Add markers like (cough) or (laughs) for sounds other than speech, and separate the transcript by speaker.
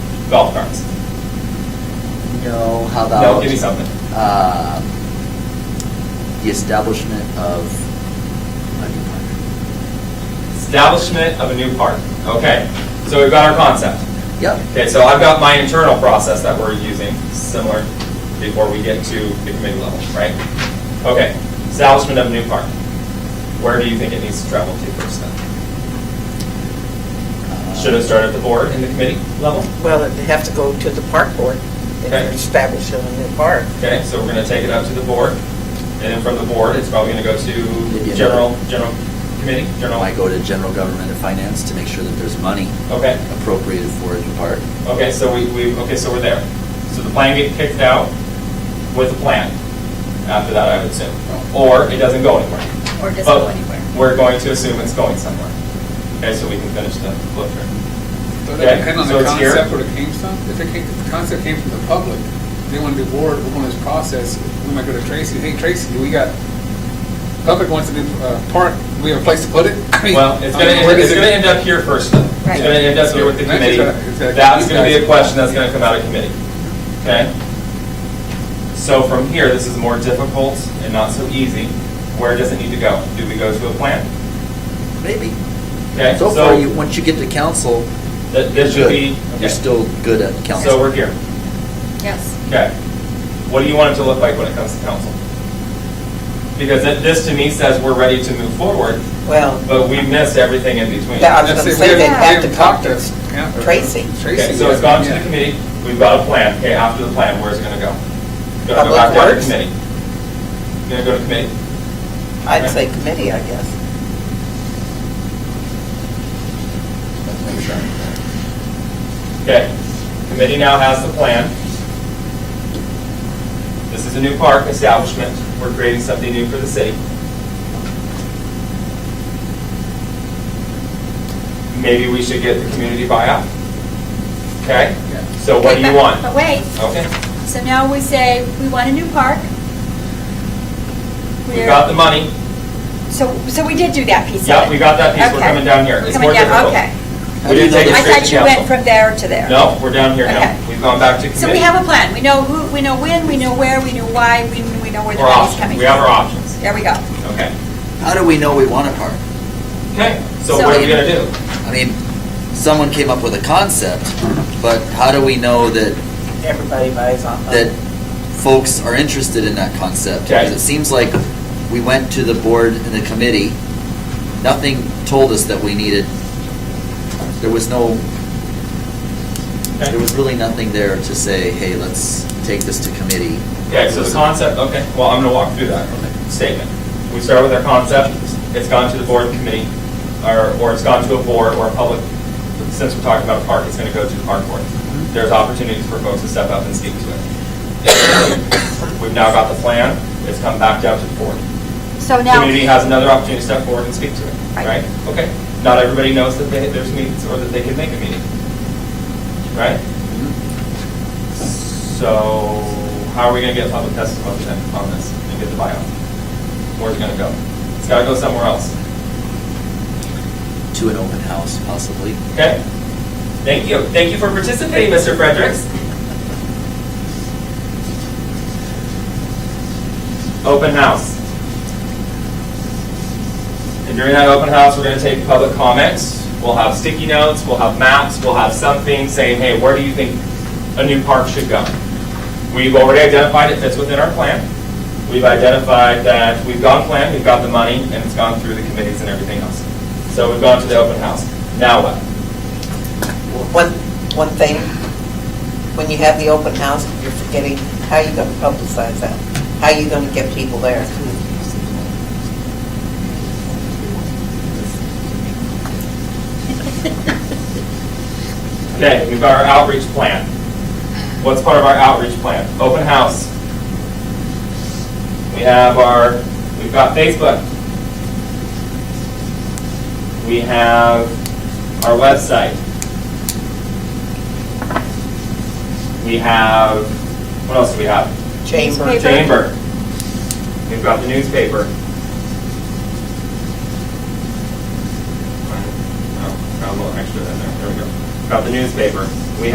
Speaker 1: golf carts.
Speaker 2: No, how about?
Speaker 1: No, give me something.
Speaker 2: uh, The establishment of a new park.
Speaker 1: Establishment of a new park. Okay, so we've got our concept.
Speaker 2: Yep,
Speaker 1: Okay, so I've got my internal process that we're using, similar, before we get to the committee level, right? Okay, establishment of a new park. Where do you think it needs to travel to first then?
Speaker 2: Uh,
Speaker 1: Should it start at the board and the committee level?
Speaker 3: Well, they have to go to the park board if
Speaker 1: Okay.
Speaker 3: they're establishing a new park.
Speaker 1: Okay, so we're gonna take it up to the board, and then from the board, it's probably gonna go to
Speaker 2: Maybe
Speaker 1: general, general committee, general.
Speaker 2: might go to general government and finance to make sure that there's money
Speaker 1: Okay.
Speaker 2: appropriated for a new park.
Speaker 1: Okay, so we, we, okay, so we're there. So the plan get kicked out with a plan after that, I would assume. Or it doesn't go anywhere.
Speaker 4: Or it doesn't
Speaker 1: But
Speaker 4: go anywhere.
Speaker 1: We're going to assume it's going somewhere. Okay, so we can finish the flip through.
Speaker 5: Does that
Speaker 1: Okay,
Speaker 5: depend on
Speaker 1: so
Speaker 5: the
Speaker 1: it's here.
Speaker 5: concept where it came from? If it came, if the concept came from the public, they want to do board, we're going to this process, we might go to Tracy, hey Tracy, we got, public wants to do uh, park, we have a place to put it? (laughs) I mean,
Speaker 1: Well, it's
Speaker 5: I
Speaker 1: gonna,
Speaker 5: mean, where
Speaker 1: it's
Speaker 5: does it-
Speaker 1: gonna end up here first though. It's
Speaker 4: Right.
Speaker 1: gonna end up here with the
Speaker 5: That's
Speaker 1: committee.
Speaker 5: exact- exactly.
Speaker 1: That's gonna be a
Speaker 5: Exactly.
Speaker 1: question that's gonna come out of committee. Okay? So from here, this is more difficult and not so easy. Where does it need to go? Do we go to a plan?
Speaker 2: Maybe.
Speaker 1: Okay,
Speaker 2: So far,
Speaker 1: so
Speaker 2: you, once you get to council,
Speaker 1: that,
Speaker 2: you're
Speaker 1: this should
Speaker 2: good.
Speaker 1: be. okay.
Speaker 2: You're still good at council.
Speaker 1: So we're here.
Speaker 4: Yes.
Speaker 1: Okay. What do you want it to look like when it comes to council? Because that- this to me says we're ready to move forward,
Speaker 3: Well,
Speaker 1: but we missed everything in between.
Speaker 3: Yeah, I was gonna
Speaker 5: That's it, we
Speaker 3: say they
Speaker 5: haven't- we
Speaker 3: have to
Speaker 5: haven't
Speaker 3: talk
Speaker 5: talked
Speaker 3: to
Speaker 5: yeah, or-
Speaker 3: Tracy.
Speaker 5: Tracy.
Speaker 1: Okay, so it's gone to the committee, we've got a plan, okay, after the plan, where's it gonna go? Gonna go
Speaker 3: Public
Speaker 1: back down to
Speaker 3: Works?
Speaker 1: committee. Gonna go to committee?
Speaker 3: I'd say committee, I guess.
Speaker 1: Okay, committee now has the plan. This is a new park establishment, we're creating something new for the city. Maybe we should get the community buyout. Okay, so what do
Speaker 4: Okay,
Speaker 1: you
Speaker 4: but- (laughs)
Speaker 1: want?
Speaker 4: But wait,
Speaker 1: Okay,
Speaker 4: so now we say, we want a new park.
Speaker 1: we got the money,
Speaker 4: So, so we did do that piece of it?
Speaker 1: yeah, we got that piece, we're
Speaker 4: Okay.
Speaker 1: coming down here, it's
Speaker 4: Coming
Speaker 1: more
Speaker 4: down,
Speaker 1: difficult.
Speaker 4: okay.
Speaker 1: We didn't take it
Speaker 4: I
Speaker 1: straight to
Speaker 4: thought you went
Speaker 1: council.
Speaker 4: from there to there.
Speaker 1: No, we're down here
Speaker 4: Okay.
Speaker 1: now, we've gone back to committee.
Speaker 4: So we have a plan, we know who, we know when, we know where, we know why, we we know where the
Speaker 1: Our
Speaker 4: money's
Speaker 1: options.
Speaker 4: coming from.
Speaker 1: We have our options,
Speaker 4: There we go.
Speaker 1: okay.
Speaker 2: How do we know we want a park?
Speaker 1: Okay, so
Speaker 4: So
Speaker 1: what are we
Speaker 4: we-
Speaker 1: gonna do?
Speaker 2: I mean, someone came up with a concept, but how do we know that
Speaker 3: Everybody buys on
Speaker 2: that folks are interested in that concept.
Speaker 1: Okay.
Speaker 2: Because it seems like we went to the board and the committee, nothing told us that we needed, there was no,
Speaker 1: Okay.
Speaker 2: there was really nothing there to say, hey, let's take this to committee.
Speaker 1: Okay, so the concept, okay, well, I'm gonna walk through that statement. We start with our concept, it's gone to the board committee, or, or it's gone to a board or a public, since we're talking about a park, it's gonna go to the park board. There's opportunities for folks to step up and speak to it. We've now got the plan, it's come back down to the board.
Speaker 4: So now.
Speaker 1: Community has another opportunity to step forward and speak to it,
Speaker 4: Right.
Speaker 1: right? Okay, not everybody knows that they, there's meetings or that they can make a meeting, right?
Speaker 4: Mm-hmm.
Speaker 1: So how are we gonna get public testimony then on this and get the buyout? Where's it gonna go? It's gotta go somewhere else,
Speaker 2: To an open house, possibly.
Speaker 1: okay? Thank you, thank you for participating, Mr. Fredericks. Open house. And during that open house, we're gonna take public comments. We'll have sticky notes, we'll have maps, we'll have something saying, hey, where do you think a new park should go? We've already identified it fits within our plan. We've identified that we've gone plan, we've got the money, and it's gone through the committees and everything else. So we've gone to the open house. Now what?
Speaker 3: One, one thing, when you have the open house, you're forgetting, how you gonna publicize that? How you gonna get people there?
Speaker 1: Okay, we've got our outreach plan. What's part of our outreach plan? Open house. We have our, we've got Facebook. We have our website. We have, what else do we have?
Speaker 3: Chamber,
Speaker 4: Newspaper.
Speaker 1: Chamber. We've got the newspaper. Oh, got a little extra in there, there we go. Got the newspaper.